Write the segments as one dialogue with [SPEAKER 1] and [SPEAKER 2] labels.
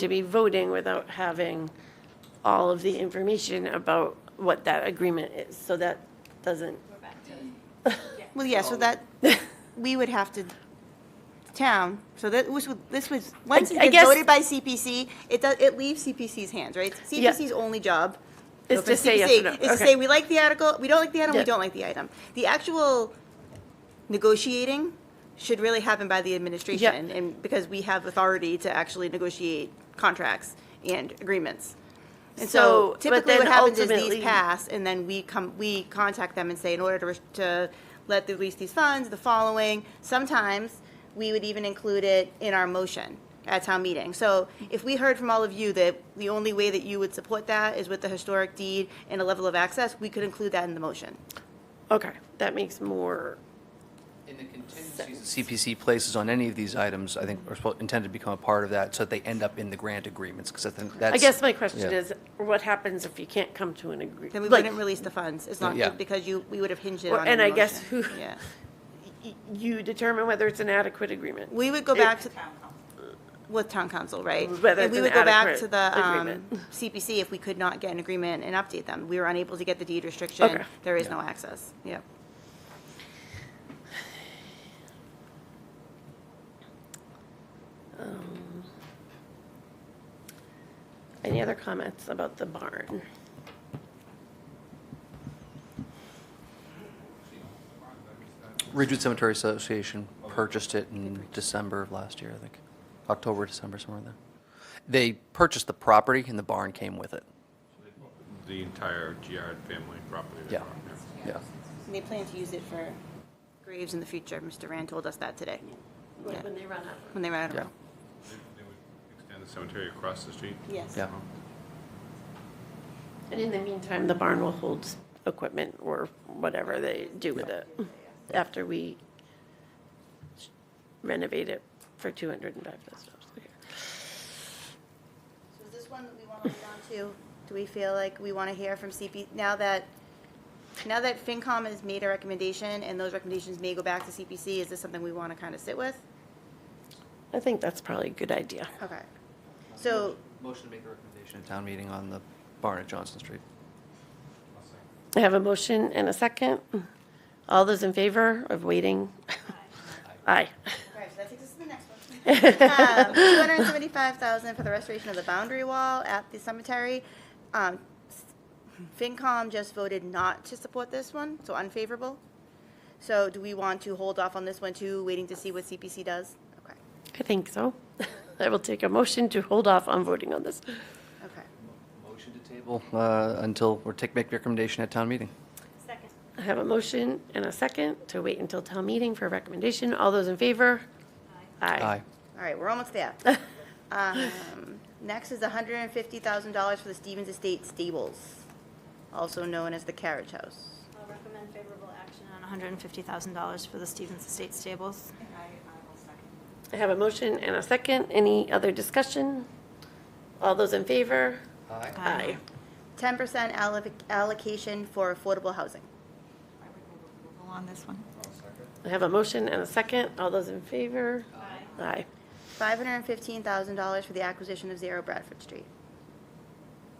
[SPEAKER 1] to be voting without having all of the information about what that agreement is. So that doesn't,
[SPEAKER 2] Well, yeah, so that, we would have to, town, so that, was with- this was, once it
[SPEAKER 1] I
[SPEAKER 2] gets
[SPEAKER 1] guess-
[SPEAKER 2] voted by CPC, it does, it leaves CPC's hands, right? CPC's only job.
[SPEAKER 1] Is
[SPEAKER 2] no,
[SPEAKER 1] to
[SPEAKER 2] for
[SPEAKER 1] say yes
[SPEAKER 2] CPC,
[SPEAKER 1] or no,
[SPEAKER 2] Is to
[SPEAKER 1] okay.
[SPEAKER 2] say, we like the article, we don't like the item, we
[SPEAKER 1] Yeah.
[SPEAKER 2] don't like the item. The actual negotiating should really happen by the administration, and, because we have authority to actually negotiate contracts and agreements. And
[SPEAKER 1] So,
[SPEAKER 2] so
[SPEAKER 1] but
[SPEAKER 2] typically
[SPEAKER 1] then
[SPEAKER 2] what happens is
[SPEAKER 1] ultimately-
[SPEAKER 2] these pass, and then we come, we contact them and say, in order to, res- to let the- release these funds, the following, sometimes we would even include it in our motion at town meeting. So if we heard from all of you that the only way that you would support that is with the historic deed and a level of access, we could include that in the motion.
[SPEAKER 1] okay, that makes more,
[SPEAKER 3] In the contingencies that CPC places on any of these items, I think are suppo- intended to become a part of that, so that they end up in the grant agreements, because I think that's.
[SPEAKER 1] I guess my question
[SPEAKER 3] Yeah.
[SPEAKER 1] is, what happens if you can't come to an agreement?
[SPEAKER 2] Then we wouldn't release the funds, as long,
[SPEAKER 3] Yeah.
[SPEAKER 2] because you, we would have hinged it
[SPEAKER 1] Well,
[SPEAKER 2] on the
[SPEAKER 1] and I guess
[SPEAKER 2] motion.
[SPEAKER 1] who-
[SPEAKER 2] Yeah.
[SPEAKER 1] You determine whether it's an adequate agreement.
[SPEAKER 2] We would go back to, with town council, right?
[SPEAKER 1] Whether
[SPEAKER 2] And we
[SPEAKER 1] it's
[SPEAKER 2] would
[SPEAKER 1] an
[SPEAKER 2] go back to
[SPEAKER 1] adequate
[SPEAKER 2] the um,
[SPEAKER 1] agreement.
[SPEAKER 2] CPC if we could not get an agreement and update them. We were unable to get the deed
[SPEAKER 1] Okay.
[SPEAKER 2] restriction. There is no access. Yep.
[SPEAKER 1] Um, Any other comments about the barn?
[SPEAKER 3] Ridgewood Cemetery Association purchased it in December of last year, I think, October, December, somewhere in there. They purchased the property and the barn came with it,
[SPEAKER 4] The entire Giard family property.
[SPEAKER 3] yeah, yeah.
[SPEAKER 2] And they plan to use it for graves in the future. Mr. Rand told us that today,
[SPEAKER 1] Like
[SPEAKER 2] Yeah.
[SPEAKER 1] when they run out.
[SPEAKER 2] when they ran out of
[SPEAKER 3] Yeah.
[SPEAKER 2] room.
[SPEAKER 4] They would extend the cemetery across the street?
[SPEAKER 2] Yes.
[SPEAKER 3] Yeah.
[SPEAKER 1] And in the meantime, the barn will hold equipment or whatever they do with it after we renovate it for two hundred and five thousand dollars.
[SPEAKER 2] So is this one that we want to hold on to? Do we feel like we want to hear from CP, now that, now that FinCom has made a recommendation and those recommendations may go back to CPC, is this something we want to kind of sit with?
[SPEAKER 1] I think that's probably a good idea.
[SPEAKER 2] Okay. So
[SPEAKER 3] Motion to make a recommendation at town meeting on the barn at Johnson Street.
[SPEAKER 1] I have a motion and a second. All those in favor of waiting? Aye.
[SPEAKER 2] All right, so that takes us to the next one. Um, Two hundred and seventy-five thousand for the restoration of the boundary wall at the cemetery. Um, s- FinCom just voted not to support this one, so unfavorable. So do we want to hold off on this one too, waiting to see what CPC does? Okay,
[SPEAKER 1] I think so. I will take a motion to hold off on voting on this.
[SPEAKER 2] okay.
[SPEAKER 3] Motion to table. uh, Until, or take, make recommendation at town meeting.
[SPEAKER 2] Second.
[SPEAKER 1] I have a motion and a second to wait until town meeting for a recommendation. All those in favor? Aye.
[SPEAKER 2] All right, we're almost there. Um, Next is hundred and fifty thousand dollars for the Stevens Estate Stables, also known as the Carriage House.
[SPEAKER 5] I'll recommend favorable action on $150,000 for the Stevens Estate Stables.
[SPEAKER 1] I have a motion and a second. Any other discussion? All those in favor?
[SPEAKER 3] Aye.
[SPEAKER 1] Aye.
[SPEAKER 2] Ten percent allocation for affordable housing.
[SPEAKER 5] On this one.
[SPEAKER 1] I have a motion and a second. All those in favor? Aye. Aye.
[SPEAKER 2] $515,000 for the acquisition of Zero Bradford Street.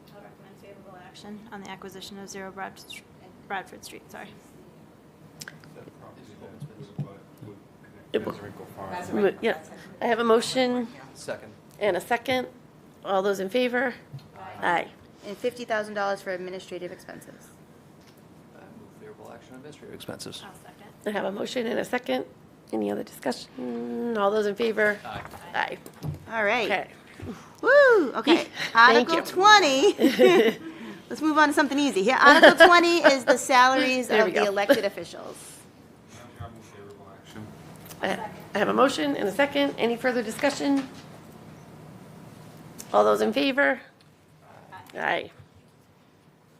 [SPEAKER 5] I'll recommend favorable action on the acquisition of Zero Bradford Str- Bradford Street, sorry.
[SPEAKER 1] It will- Mo- Yeah. I have a motion
[SPEAKER 3] Second.
[SPEAKER 1] and a second. All those in favor? Aye.
[SPEAKER 2] And $50,000 for administrative expenses.
[SPEAKER 3] I uh, move favorable action on administrative expenses.
[SPEAKER 5] I'll second.
[SPEAKER 1] I have a motion and a second. Any other discussion? All those in favor?
[SPEAKER 3] Aye.
[SPEAKER 1] Aye.
[SPEAKER 2] All right.
[SPEAKER 1] Okay.
[SPEAKER 2] Woo, okay.
[SPEAKER 1] Thank
[SPEAKER 2] Article
[SPEAKER 1] you.
[SPEAKER 2] 20. Let's move on to something easy here. Article 20 is the salaries
[SPEAKER 1] There we
[SPEAKER 2] of the
[SPEAKER 1] go.
[SPEAKER 2] elected officials.
[SPEAKER 1] I I have a motion and a second. Any further discussion? All those in favor? Aye.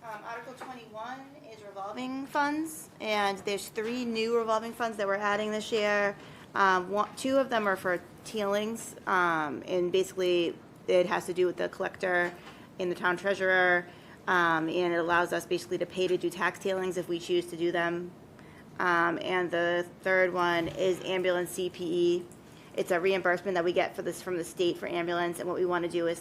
[SPEAKER 2] Um, Article 21 is revolving funds, and there's three new revolving funds that we're adding this year. Um, one- Two of them are for tailings, um, and basically, it has to do with the collector and the town treasurer, um, and it allows us basically to pay to do tax tailings if we choose to do them. Um, And the third one is E. ambulance CPE. It's a reimbursement that we get for this, from the state for ambulance, and what we want to do is